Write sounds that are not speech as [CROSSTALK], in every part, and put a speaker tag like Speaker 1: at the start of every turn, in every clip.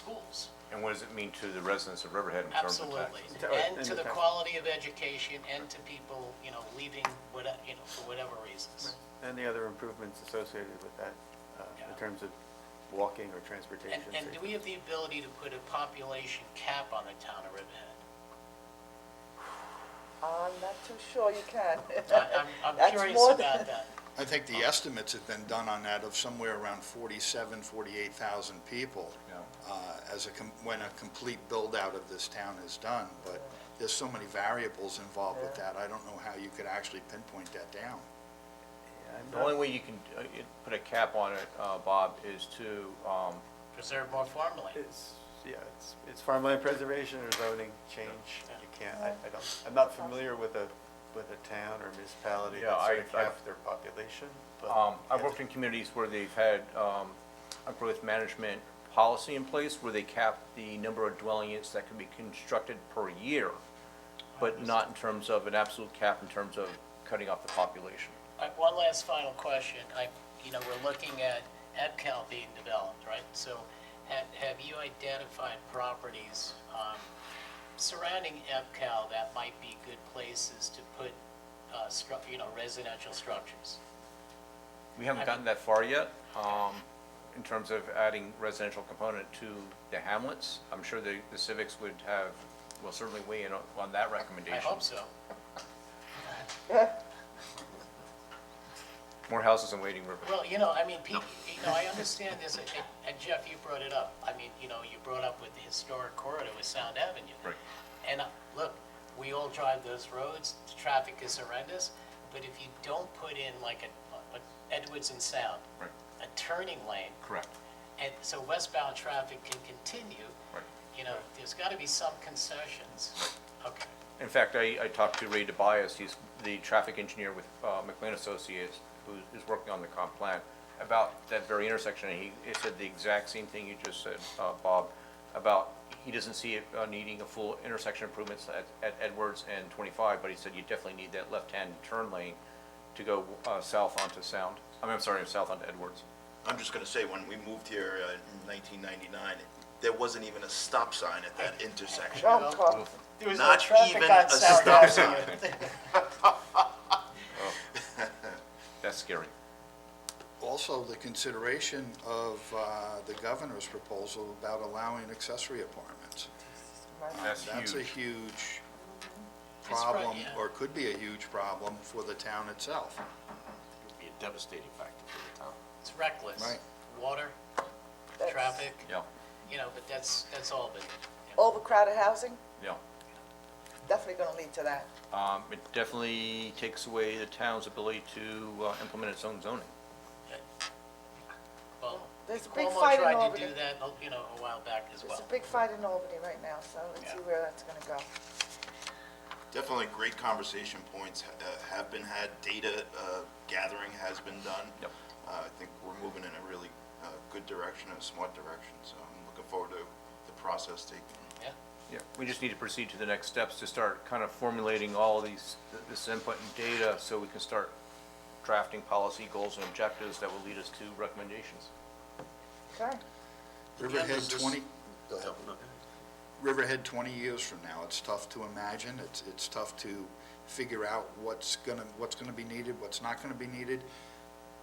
Speaker 1: schools.
Speaker 2: And what does it mean to the residents of Riverhead in terms of
Speaker 1: Absolutely.
Speaker 2: taxes?
Speaker 3: To-
Speaker 1: And
Speaker 3: and
Speaker 1: to
Speaker 3: the
Speaker 1: the
Speaker 3: tax-
Speaker 1: quality of education and to people, you know, leaving, what- you know, for whatever reasons.
Speaker 3: And the other improvements associated with that, uh,
Speaker 1: Yeah.
Speaker 3: in terms of walking or
Speaker 1: And,
Speaker 3: transportation.
Speaker 1: and do we have the ability to put a population cap on the town of Riverhead?
Speaker 4: I'm not too sure you
Speaker 1: [LAUGHS]
Speaker 4: can.
Speaker 1: I- I'm, I'm
Speaker 4: That's
Speaker 1: curious
Speaker 4: more
Speaker 1: about
Speaker 4: than-
Speaker 1: that.
Speaker 5: I think the
Speaker 6: Oh.
Speaker 5: estimates have been done on that of somewhere around 47, 48,000 people
Speaker 2: Yeah.
Speaker 5: uh, as a, com- when a complete build-out of this town is done, but there's so many variables involved with that, I don't know how you could actually pinpoint that down.
Speaker 3: I'm
Speaker 6: The only
Speaker 3: not-
Speaker 6: way you can uh, you put a cap on it, uh, Bob, is to, um,
Speaker 1: Preserve more farmland.
Speaker 3: It's, yeah, it's, it's farmland preservation or zoning change. You can't, I, I don't, I'm not familiar with a, with a town or municipality
Speaker 6: Yeah,
Speaker 3: that
Speaker 6: I-
Speaker 3: sort of
Speaker 6: I-
Speaker 3: capped their population, but.
Speaker 6: um, I've worked in communities where they've had um, a growth management policy in place where they cap the number of dwelling units that can be constructed per year, but not in terms of an absolute cap in terms of cutting off the population.
Speaker 1: All right, One last final question. I, you know, we're looking at EPCAL being developed, right? So have, have you identified properties um, surrounding EPCAL that might be good places to put, uh, stru- you know, residential structures?
Speaker 6: We haven't gotten that far yet, um, in terms of adding residential component to the hamlets. I'm sure the the civics would have, will certainly weigh in on- on that
Speaker 1: I
Speaker 6: recommendation.
Speaker 1: hope so.
Speaker 6: More houses in Wading River.
Speaker 1: Well, you know, I mean, Pete, you know, I understand this, and- and Jeff, you brought it up. I mean, you know, you brought up with the historic corridor with Sound Avenue.
Speaker 6: Right.
Speaker 1: And uh, look, we all drive those roads, the traffic is horrendous, but if you don't put in like a, a- Edwards and Sound,
Speaker 6: Right.
Speaker 1: a turning lane,
Speaker 6: Correct.
Speaker 1: and so westbound traffic can continue,
Speaker 6: Right.
Speaker 1: you know, there's got to be some concessions. Okay,
Speaker 6: In fact, I, I talked to Ray DeBias, he's the traffic engineer with uh, McLean Associates, who is working on the comp plan, about that very intersection, and he, he said the exact same thing you just said, uh, Bob, about he doesn't see it uh, needing a full intersection improvements at, at Edwards and 25, but he said you definitely need that left-hand turn lane to go uh, south onto Sound, I mean, I'm sorry, south onto Edwards.
Speaker 7: I'm just gonna say, when we moved here uh, in nineteen ninety-nine, there wasn't even a stop sign at that intersection.
Speaker 4: Don't call.
Speaker 1: There was no
Speaker 7: Not
Speaker 1: traffic
Speaker 7: even
Speaker 1: on
Speaker 7: a
Speaker 1: Sound
Speaker 7: stop
Speaker 1: Avenue.
Speaker 7: sign.
Speaker 6: That's scary.
Speaker 5: Also, the consideration of uh, the governor's proposal about allowing accessory apartments.
Speaker 6: That's
Speaker 5: That's a
Speaker 6: huge.
Speaker 5: huge
Speaker 1: It's right,
Speaker 5: problem,
Speaker 1: yeah.
Speaker 5: or could be a huge problem for the town itself.
Speaker 8: would be a devastating factor for the town.
Speaker 1: It's reckless.
Speaker 5: Right.
Speaker 1: Water,
Speaker 4: That's
Speaker 1: traffic,
Speaker 6: Yeah,
Speaker 1: you know, but that's, that's all been.
Speaker 4: Overcrowded housing,
Speaker 6: yeah.
Speaker 4: definitely gonna lead to that.
Speaker 6: Um, It definitely takes away the town's ability to uh, implement its own zoning.
Speaker 1: Well,
Speaker 4: There's a big
Speaker 1: uh, Cuomo
Speaker 4: fight in
Speaker 1: tried to
Speaker 4: Albany.
Speaker 1: do that, you know, a while back as
Speaker 4: There's
Speaker 1: well.
Speaker 4: a big fight in Albany right now, so let's see
Speaker 1: Yeah.
Speaker 4: where that's gonna go.
Speaker 7: Definitely great conversation points ha- uh, have been had, data uh, gathering has been done.
Speaker 6: Yep.
Speaker 7: Uh, I think we're moving in a really uh, good direction, a smart direction, so I'm looking forward to the process taking
Speaker 1: Yeah,
Speaker 6: Yeah, we just need to proceed to the next steps to start kind of formulating all of these, th- this input and data so we can start drafting policy goals and objectives that will lead us to recommendations.
Speaker 4: Okay,
Speaker 5: Riverhead
Speaker 8: Does this-
Speaker 5: 20,
Speaker 8: Go ahead. Okay.
Speaker 5: Riverhead 20 years from now, it's tough to imagine, it's, it's tough to figure out what's gonna, what's gonna be needed, what's not gonna be needed,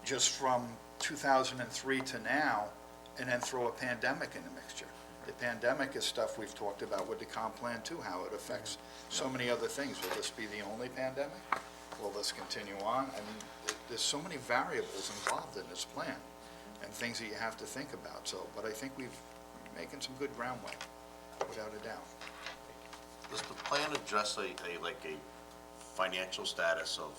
Speaker 5: just from 2003 to now, and then throw a pandemic in the mixture. The pandemic is stuff we've talked about with the comp plan too, how it affects so many other things. Will this be the only pandemic? Will this continue on? I mean, th- there's so many variables involved in this plan, and things that you have to think about, so, but I think we've making some good groundwork without a doubt.
Speaker 8: Does the plan address a, a, like a financial status of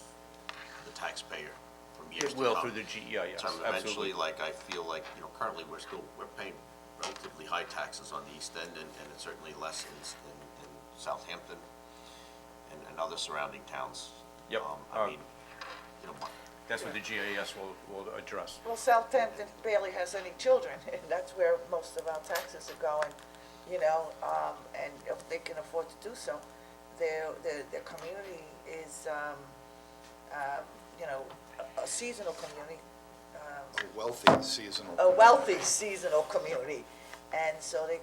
Speaker 8: the taxpayer from years
Speaker 6: It
Speaker 8: to come?
Speaker 6: will through the GEIS,
Speaker 8: In terms of
Speaker 6: absolutely.
Speaker 8: uh, Eventually, like, I feel like, you know, currently, we're still, we're paying relatively high taxes on the East End, and, and it's certainly less in, s- in, in Southampton and, and other surrounding towns.
Speaker 6: Yep,
Speaker 8: Um,
Speaker 6: uh,
Speaker 8: I mean, you know,
Speaker 6: That's what the GIS will, will address.
Speaker 4: well, Southampton barely has any children, [LAUGHS] and that's where most of our taxes are going, you know, um, and if they can afford to do so, their, their, their community is, um, um, you know, a- a seasonal community,
Speaker 5: A wealthy seasonal.
Speaker 4: a wealthy seasonal community. And so they